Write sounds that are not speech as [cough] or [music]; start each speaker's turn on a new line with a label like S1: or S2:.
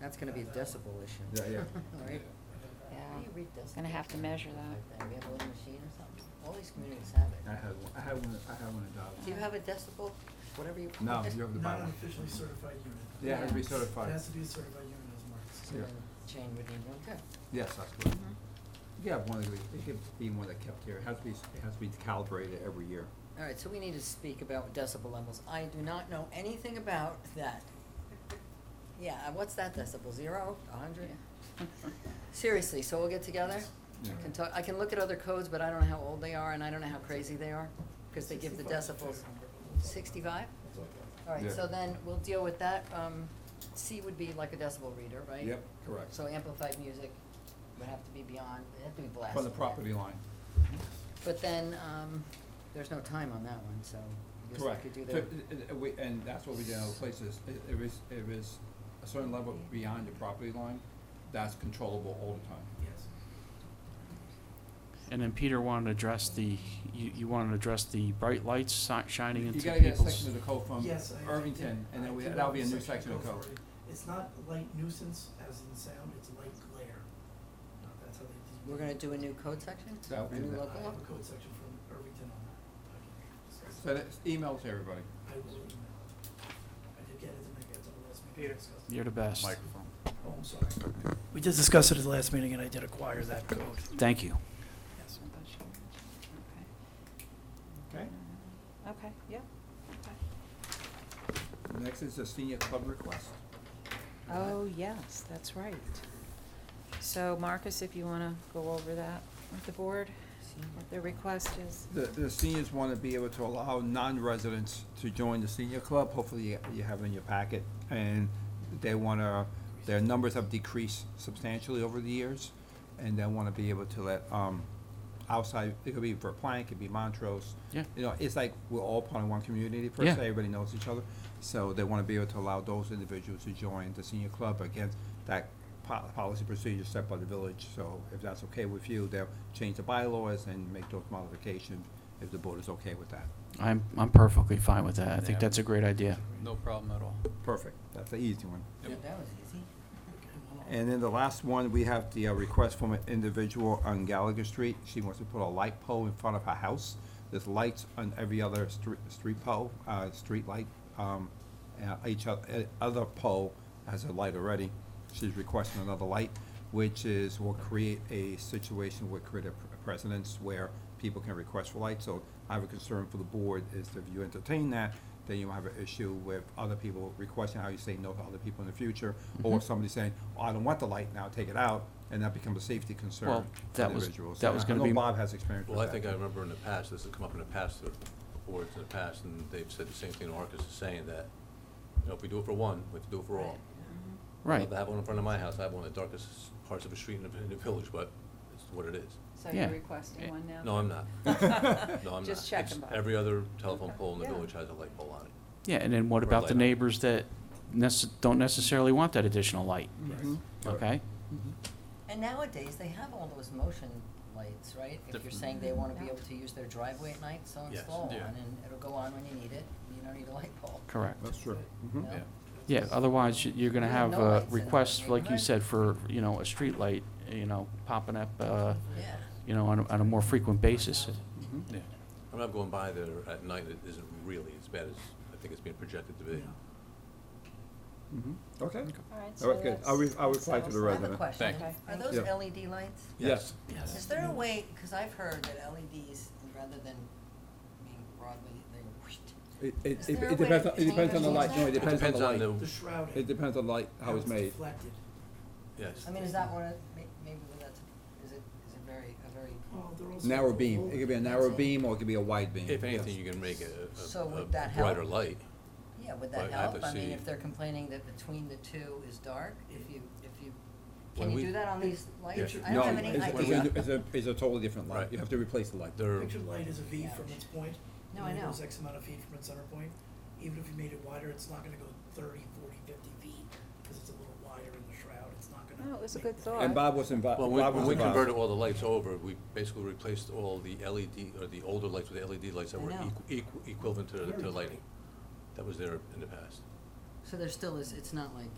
S1: That's gonna be a decibel issue.
S2: Yeah,
S1: [laughs]
S2: yeah.
S1: Right?
S3: yeah.
S4: How do you read decibels?
S3: Gonna have to measure that.
S4: Do we have a little machine or something? All these communities have
S2: I
S4: it.
S2: had one, I had one, I had one adopted.
S4: Do you have a decibel, whatever you
S2: No,
S4: call it?
S2: you have to buy
S5: Not
S2: one.
S5: an officially certified unit.
S2: Yeah, it has to be
S3: Yeah.
S5: It
S2: certified.
S5: has to be a certified unit as marked.
S4: So
S2: Yeah.
S4: then Jane would need one too.
S2: Yes, that's good.
S4: Mm-hmm.
S2: You have one, of these- it could be one that kept here. It has to be, it has to be calibrated every year.
S4: All right, so we need to speak about decibel levels. I do not know anything about that. Yeah, uh, what's that decibel, zero, a hundred?
S3: [laughs]
S4: Seriously, so we'll get together?
S2: Yeah.
S4: I can talk, I can look at other codes, but I don't know how old they are and I don't know how crazy they are, because they give the decibels. Sixty-five? All right,
S2: Yeah.
S4: so then we'll deal with that. Um, C would be like a decibel reader, right?
S2: Yep, correct.
S4: So amplified music would have to be beyond, it'd have to be blasted.
S2: From the property line.
S4: But then, um, there's no time on that one, so I guess we
S2: Correct.
S4: could do
S2: So,
S4: that.
S2: uh, uh, we- And that's what we did in other places. I- If it's, if it's a certain level beyond your property line, that's controllable all the time.
S5: Yes.
S6: And then Peter wanted to address the, you, you wanted to address the bright lights si- shining into
S2: You gotta get a
S6: people's.
S2: section of the code from
S5: Yes, I- I
S2: Um, Irvington,
S5: did-
S2: and
S5: I
S2: then we,
S5: did
S2: that'll
S5: have
S2: be a new section
S5: section
S2: of
S5: go
S2: code.
S5: for it. It's not light nuisance as in sound, it's light glare. Uh, That's how they.
S4: We're gonna do a new code section?
S2: That would
S4: A
S2: be
S4: new
S2: the-
S5: I
S4: local law?
S5: have a code section from Irvington on that. I
S2: So
S5: can discuss it.
S2: that's email to everybody.
S5: I will email it. I did get it, and I got it the last meeting. Peter.
S6: You're the best.
S5: Oh, I'm sorry. We did discuss it at the last meeting, and I did acquire that code.
S6: Thank you.
S5: Yes.
S2: Okay.
S3: Uh, Okay, yeah.
S2: Next is the senior club request.
S3: Oh, yes, that's right. So Marcus, if you wanna go over that with the board, what the request is.
S2: The, the seniors want to be able to allow non-residents to join the senior club. Hopefully you- you have it in your packet. And they want to, their numbers have decreased substantially over the years. And they want to be able to let, um, outside, it could be Verplank, it could be Montrose.
S6: Yeah.
S2: You know, it's like we're all part of one community per se.
S6: Yeah.
S2: Everybody knows each other. So they want to be able to allow those individuals to join the senior club against that po- policy procedure set by the village. So if that's okay with you, they'll change the bylaws and make those modifications if the board is okay with that.
S6: I'm, I'm perfectly fine with that. I
S7: Yeah.
S6: think that's a great idea.
S7: No problem at all.
S2: Perfect. That's the easy one.
S4: Yeah, That was easy.
S2: And then the last one, we have the uh, request from an individual on Gallagher Street. She wants to put a light pole in front of her house. There's lights on every other street, street pole, uh, street light. Um, uh, each o- uh, other pole has a light already. She's requesting another light, which is, will create a situation, will create a pre- precedence where people can request for lights. So I have a concern for the board is if you entertain that, then you have an issue with other people requesting how you say no to other people in the future, or somebody saying, oh, I don't want the light now, take it out, and that becomes a safety concern
S6: Well,
S2: for
S6: that was-
S2: individuals.
S6: that
S2: And
S6: was
S2: I-
S6: gonna
S2: I
S6: be-
S2: know Bob has experience with
S7: Well,
S2: that.
S7: I think I remember in the past, this has come up in the past, the boards in the past, and they've said the same thing Marcus is saying, that, you know, if we do it for one, we have to do it for all.
S3: Uh-huh.
S7: I'd
S6: Right.
S7: love to have one in front of my house, I have one in the darkest parts of a street in the, in the village, but it's what it is.
S3: So
S6: Yeah.
S3: you're requesting one now?
S7: No,
S3: [laughs]
S7: I'm not. No, I'm not.
S3: Just
S7: It's-
S3: checking, Bob.
S7: Every other telephone
S3: Okay.
S7: pole in the
S3: Yeah.
S7: village has a light pole on it.
S6: Yeah, and then what
S7: Or
S6: about
S7: light
S6: the
S7: on.
S6: neighbors that necess- don't necessarily want that additional light? Mm-hmm. Okay?
S4: And nowadays, they have all those motion lights, right? If you're saying they wanna be able to use their driveway at night, so
S7: Yes.
S4: install one,
S7: Yeah.
S4: and it'll go on when you need it, you don't need a light bulb.
S6: Correct.
S2: That's true.
S4: you
S2: Mhm.
S4: know?
S7: Yeah.
S6: Yeah, otherwise you- you're gonna
S4: Yeah,
S6: have
S4: no
S6: uh,
S4: lights in
S6: requests,
S4: the
S6: like you
S4: neighborhood.
S6: said, for, you know, a street light, you know, popping up, uh,
S4: Yeah.
S6: you know, on a, on a more frequent basis.
S2: Mm-hmm.
S7: Yeah. I'm not going by there at night, it isn't really as bad as I think it's being projected to be.
S5: Yeah.
S2: Mhm. Okay.
S3: All right,
S2: All
S3: so
S2: right, good. I'll re-
S3: that's-
S2: I'll
S3: that
S2: reply to
S3: settles
S2: the
S3: that.
S4: I have a
S2: Resident.
S4: question.
S3: Thank you.
S4: Are those
S2: Yeah.
S4: LED lights?
S2: Yes.
S5: Yes.
S4: Is there a way, because I've heard that LEDs, rather than being broadly, they whoosh.
S2: It, it,
S4: Is
S2: it
S4: there a
S2: it depends,
S4: way
S2: on-
S4: to
S2: it depends on the
S4: change
S2: light, no, it
S4: that?
S2: depends on the light.
S5: The shrouding.
S2: It depends on the light, how it's made.
S5: Reflected.
S7: Yes.
S4: I mean, is that what, it- may- maybe that's, is it, is it very, a very,
S5: Well, they're also
S2: Narrow beam, it could be a narrow
S4: That's it.
S2: beam or it could be a wide beam.
S7: If anything,
S2: Yes.
S7: you can make a,
S4: So
S7: a-
S4: would
S7: a
S4: that
S7: brighter
S4: help?
S7: light.
S4: yeah, would
S7: Well,
S4: that
S7: I have
S4: help?
S7: to
S4: I mean,
S7: see.
S4: if they're complaining that between the two is dark, if you, if you,
S7: When
S4: can you
S7: we-
S4: do that on these lights?
S7: Yeah.
S4: I don't have
S2: No,
S4: any
S2: it's- it's
S4: idea.
S2: a- It's a, it's a totally different light.
S7: Right.
S2: You have to replace the light.
S7: They're-
S5: Picture light is a V from its point.
S4: No,
S5: and
S4: I
S5: it
S4: know.
S5: goes X amount of feet from its center point. Even if you made it wider, it's not gonna go 30, 40, 50 feet, because it's a little wider in the shroud, it's not gonna.
S3: No, it was a
S5: make
S3: good
S5: the-
S3: thought.
S2: And Bob was involved,
S7: Well,
S2: Bob
S7: when,
S2: was
S7: when we
S2: involved.
S7: converted all the lights over, we basically replaced all the LED, or the older lights with LED lights that
S4: I
S7: were
S4: know.
S7: equ- equ- equivalent to the, to the lighting. That was there in the past.
S4: So there still is, it's not like